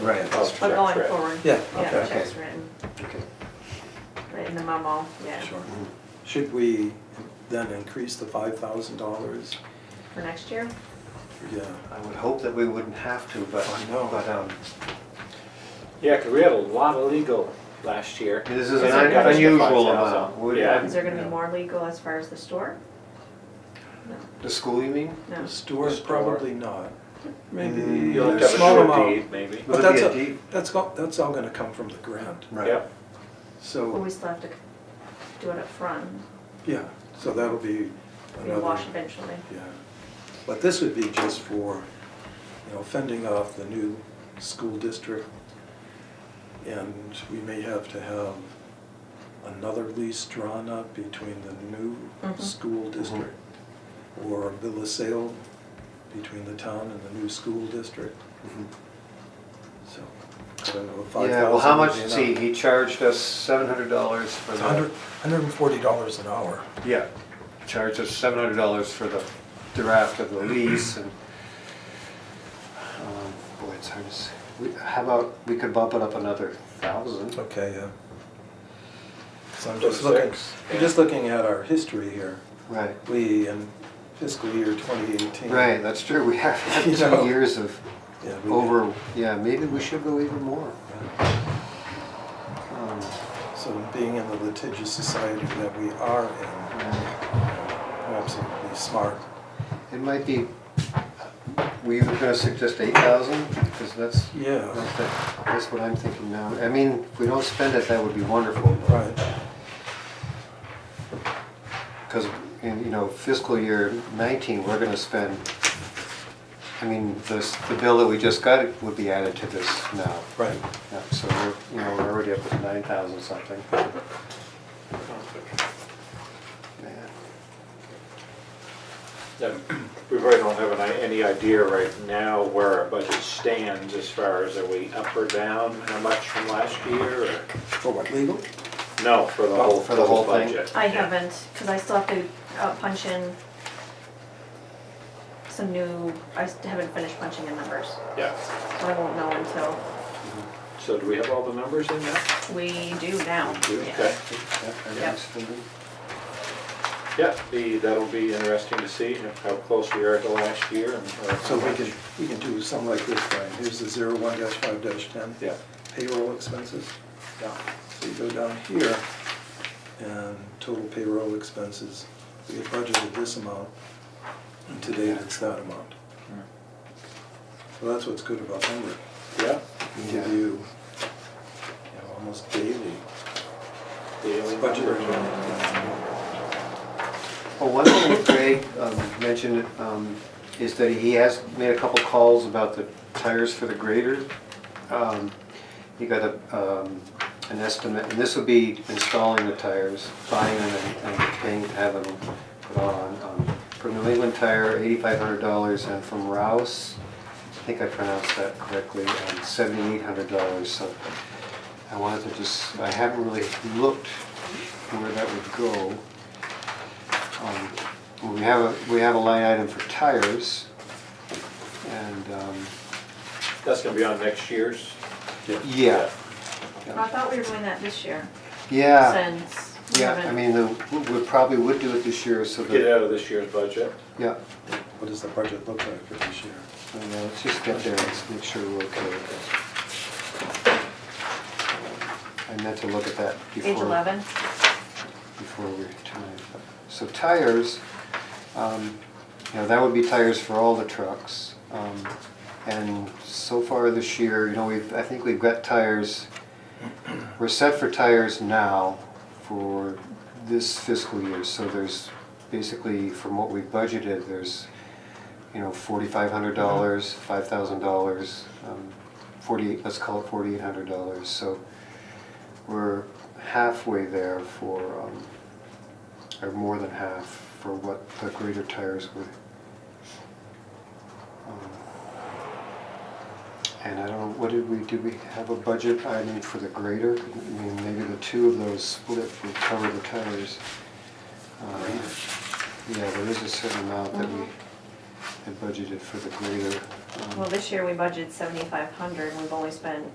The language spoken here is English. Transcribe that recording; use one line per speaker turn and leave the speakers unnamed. Right, that's
But
true.
Oh, going forward.
Yeah,
Yeah,
okay.
checks written,
Okay,
written in the memo, yeah,
Sure.
should we then increase the five thousand dollars?
for next year.
Yeah,
I would hope that we wouldn't have to, but,
I know.
but, um,
Yeah, 'cause we had a lot of legal last year.
this is
Is
an
it
un-
got us to
unusual
5,000?
amount. Would-
Yeah.
Is there gonna be more legal as far as the store? No,
The school, you mean?
no.
the store,
store.
probably not. Maybe
You'll have to
a
have a
small
short deed,
amount.
maybe.
Would
But that's,
be a
a-
deed.
that's, all- that's all gonna come from the grant,
Right.
Yep,
Well,
so,
we still have to do it up front.
yeah, so that'll be
we wash
another,
eventually.
yeah. But this would be just for, you know, fending off the new school district. And we may have to have another lease drawn up between the new
Mhm.
school district
Mm-hmm.
or a bill of sale between the town and the new school district,
Mhm.
so. I don't know, five thousand.
Yeah, well, how much,
would be
see,
enough.
he charged us seven hundred dollars for
It's
the.
a hundred, hundred and forty dollars an hour.
Yeah, charged us seven hundred dollars for the draft of the lease and, um, boy, it's hard to say. We- How about, we could bump it up another thousand?
Okay, yeah. So I'm
So
just looking,
six,
I'm just looking at our history here.
Right,
We, in fiscal year twenty eighteen.
right, that's true, we have had
You know.
two years of over, yeah, maybe we should go even more. Um,
So being in the litigious society that we are in,
yeah.
perhaps it would be smart.
It might be, we were gonna suggest eight thousand, because that's,
Yeah,
that's what I'm thinking now. I mean, if we don't spend it, that would be wonderful. but-
right.
Because, in, you know, fiscal year 19, we're going to spend, I mean, this, the bill that we just got would be added to this now.
Right.
Yeah, So, we're you know, we're already up at 9,000 something. Man,
Then We probably don't have an i- any idea right now where our budget stands as far as are we up or down, how much from last year or?
For what, legal?
No, for the whole,
Oh, For the whole thing?
budget.
I
Yeah.
haven't, because I still have to uh, punch in some new, I s- haven't finished punching in numbers,
Yeah,
so I won't know until
so do we have all the numbers in there?
we do now. yeah.
Okay.
yeah, everything's still good.
Yeah, the, that'll be interesting to see how close we are to last year and. uh, or how
So we
much.
can, we can do something like this, Brian. Here's the zero one dash five dash ten.
Yeah,
Payroll expenses.
yeah.
So you go down here, and total payroll expenses, we had budgeted this amount, and to date, it's that amount. So that's what's good about Henry,
Yeah,
we give
Yeah.
you, you know, almost daily
daily
budget.
numbers.
Well, Oh, one thing that Greg um, mentioned um, is that he has made a couple calls about the tires for the grader. Um, He got a, um, an estimate, and this would be installing the tires, buying them and and paying to have them put on. Um, From New England Tire, eighty-five hundred dollars, and from Rouse, I think I pronounced that correctly, um, seventy-eight hundred dollars. So I wanted to just, I haven't really looked where that would go. Um, well, We have, a we have a line item for tires, and, um,
That's gonna be on next year's.
yeah,
I thought we were doing that this year,
yeah,
since we
Ah. yeah, I
haven't,
mean, the- we we probably would do it this year, so
Get it
that,
out of this year's budget.
yeah.
What does the budget look like for this year?
I don't know, Let's just get there, let's make sure we're okay with it. I meant to look at that before.
page 11.
before we time. So tires, um, you know, that would be tires for all the trucks. Um, And so far this year, you know, we've, I think we've got tires, we're set for tires now for this fiscal year. So there's basically, from what we budgeted, there's, you know, forty-five hundred dollars, five thousand dollars, forty-eight, let's call it forty-eight hundred dollars. So we're halfway there for, um, or more than half for what the greater tires would. um, And I don't know, what did we, did we have a budget item for the greater? I mean, maybe the two of those split would cover the tires. Uh, Yeah, there is a certain amount that we had budgeted for the greater. Um,
Well, this year we budgeted seventy-five hundred, we've only spent